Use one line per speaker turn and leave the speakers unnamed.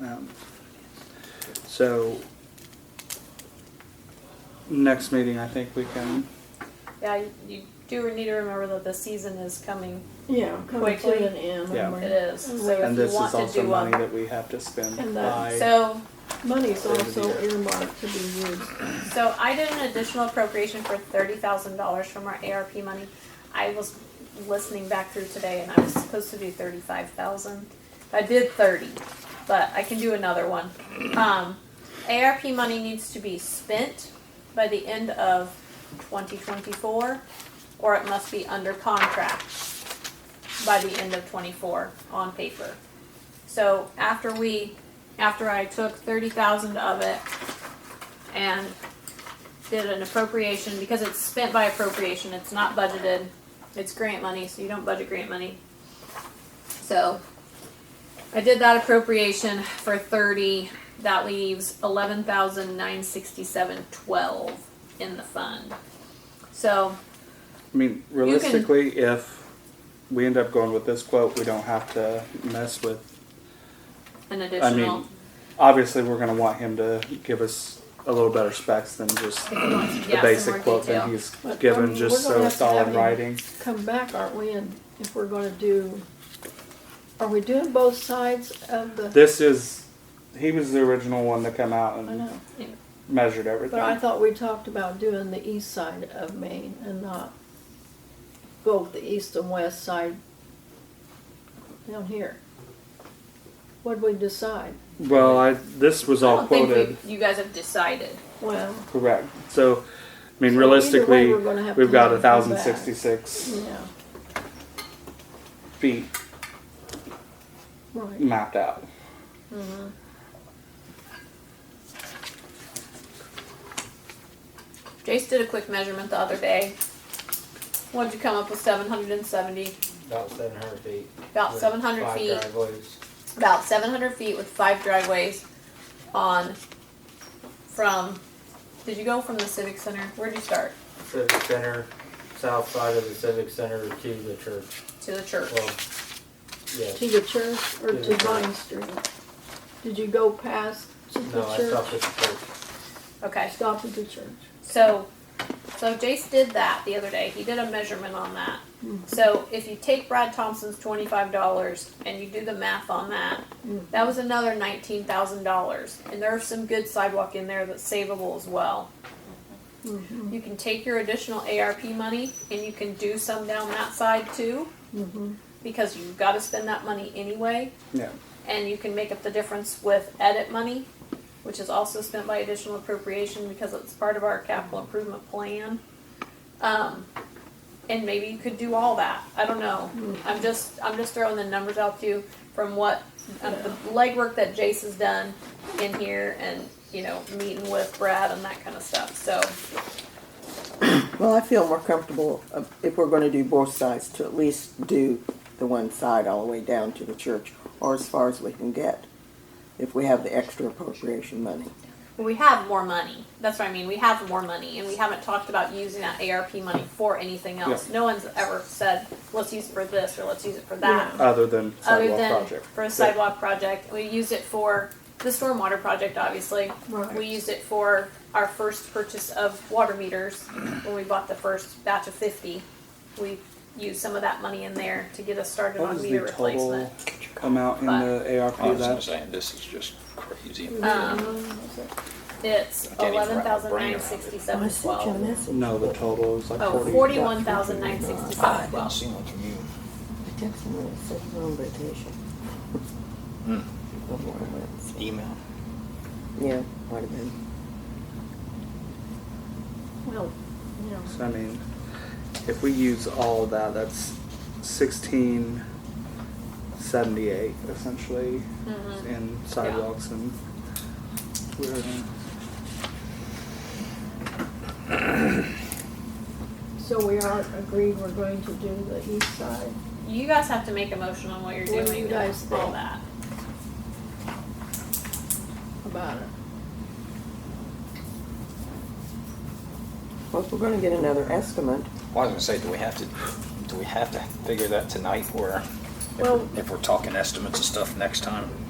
Um, So, next meeting, I think we can,
Yeah, you- you do need to remember that the season is coming.
Yeah, coming
Quickly.
to an end.
Yeah.
and
It
we're-
is. So
and
if you
this is
want to
also
do
money
one.
that we have to spend
And that-
by,
So,
Money's
End of the
also
year.
earmarked to be used.
so I did an additional appropriation for thirty thousand dollars from our ARP money. I was listening back through today and I was supposed to do thirty-five thousand. I did thirty, but I can do another one. Um, ARP money needs to be spent by the end of twenty twenty-four, or it must be under contract by the end of twenty-four on paper. So after we, after I took thirty thousand of it and did an appropriation, because it's spent by appropriation, it's not budgeted, it's grant money, so you don't budget grant money. So, I did that appropriation for thirty, that leaves eleven thousand nine sixty-seven twelve in the fund. So,
I mean, realistically, if we end up going with this quote, we don't have to mess with
an additional,
obviously we're gonna want him to give us a little better specs than just the
yeah, some
basic
more
quote that
detail.
he's
But, I
given,
mean,
just
we're gonna
so
have
it's
to
all
have
in
him
writing.
Come back, aren't we, and if we're gonna do, are we doing both sides of the?
This is, he was the original one to come out
I
and
know,
measured
but I
everything.
thought we talked about doing the east side of Maine and not both the east and west side down here. What'd we decide?
Well, I, this was
I
all
don't think we-
quoted,
You guys have decided.
Well,
correct, so, I mean,
So either way,
realistically,
we're gonna have
we've
to
got
let
a
him come
thousand
back.
sixty-six
yeah,
feet
right.
mapped out.
Jace did a quick measurement the other day. What'd you come up with? Seven hundred and seventy,
About seven hundred feet.
about
with
seven hundred
five
feet,
driveways.
about seven hundred feet with five driveways on from. Did you go from the civic center? Where'd you start
Civic Center, south side of the Civic Center to the church.
to the church?
Well, yes.
To the church or
To the
to
church.
Vine Street? Did you go past to the
No, I
church?
stopped at the church.
Okay,
Stopped at the church.
so so Jace did that the other day. He did a measurement on that. So if you take Brad Thompson's twenty five dollars and you do the math on that,
Mm.
that was another nineteen thousand dollars. And there's some good sidewalk in there that's savable as well.
Mhm,
You can take your additional ARP money and you can do some down that side too,
mhm.
because you've got to spend that money anyway.
Yeah.
And you can make up the difference with edit money, which is also spent by additional appropriation because it's part of our capital improvement plan. Um, and maybe you could do all that. I don't know. I'm just, I'm just throwing the numbers out to you from what, um, the legwork that Jace has done in here and, you know, meeting with Brad and that kind of stuff, so.
Well, I feel more comfortable uh, if we're gonna do both sides, to at least do the one side all the way down to the church, or as far as we can get, if we have the extra appropriation money.
We have more money. That's what I mean. We have more money, and we haven't talked about using that ARP money for anything else. No one's ever said, let's use it for this or let's use it for that.
Other than
Other
sidewalk
than
project.
for a sidewalk project, we used it for the stormwater project, obviously.
Right.
We used it for our first purchase of water meters when we bought the first batch of 50. We used some of that money in there to get us started
What
on
was
meter
the total
replacement.
amount in the ARP
Oh, I was gonna
that?
say, this is just crazy.
Um, It's
I can't even
eleven
wrap my
thousand
brain
nine
around it.
sixty-seven twelve.
message.
No, the total was like
Oh,
forty.
forty-one thousand nine
Ah, I
sixty-seven
didn't
twelve.
see one from you.
I texted him and said, "We're on vacation."
Hmm.
Before I went, so-
Email.
Yeah, might have been.
Well, yeah.
So I mean, if we use all of that, that's sixteen seventy-eight essentially
Mm-hmm.
in sidewalks and. we're in-
So we are agreed we're going to do the east side.
You guys have to make a motion on what you're
What do
doing
you
and
guys
all
think?
that.
About it.
Well, if we're gonna get another estimate,
Well, I was gonna say, do we have to, do we have to figure that tonight or if
Well-
we're- if we're talking estimates and stuff next time?